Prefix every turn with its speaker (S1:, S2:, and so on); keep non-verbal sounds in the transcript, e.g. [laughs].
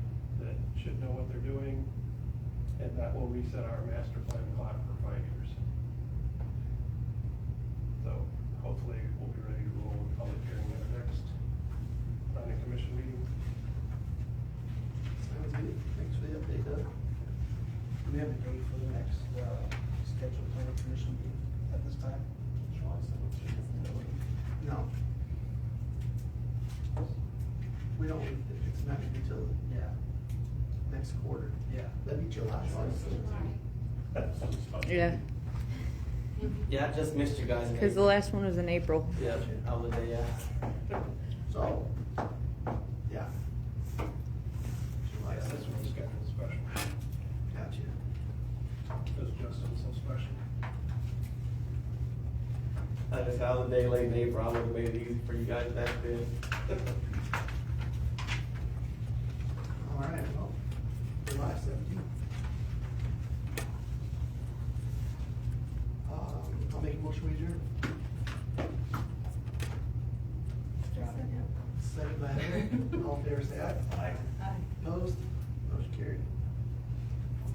S1: should know what they're doing, and that will reset our master plan clock for five years. So hopefully we'll be ready to roll in public hearing at our next planning commission meeting.
S2: Sounds good. Thanks for the update, Doug.
S3: Do we have a date for the next, uh, scheduled planning commission meeting at this time?
S2: No. We don't, it's not gonna be till
S3: Yeah,
S2: next quarter.
S3: yeah.
S2: That'd be July.
S4: Yeah,
S5: Yeah, I just missed you guys. in
S4: because the
S5: April.
S4: last one was in April.
S5: Yeah, I was there, yeah.
S2: So, yeah. July
S1: Like, this
S2: sixth.
S1: one's getting special,
S2: Gotcha.
S1: because Justin's so special.
S5: I just, I was a day late in April, I would've made it easy for you guys back then. [laughs]
S2: All right, well, July seventeenth. Um, I'll make a motion we adjourn. Second by Heather, all in favor, say aye. Aye. Opposed? Motion carried.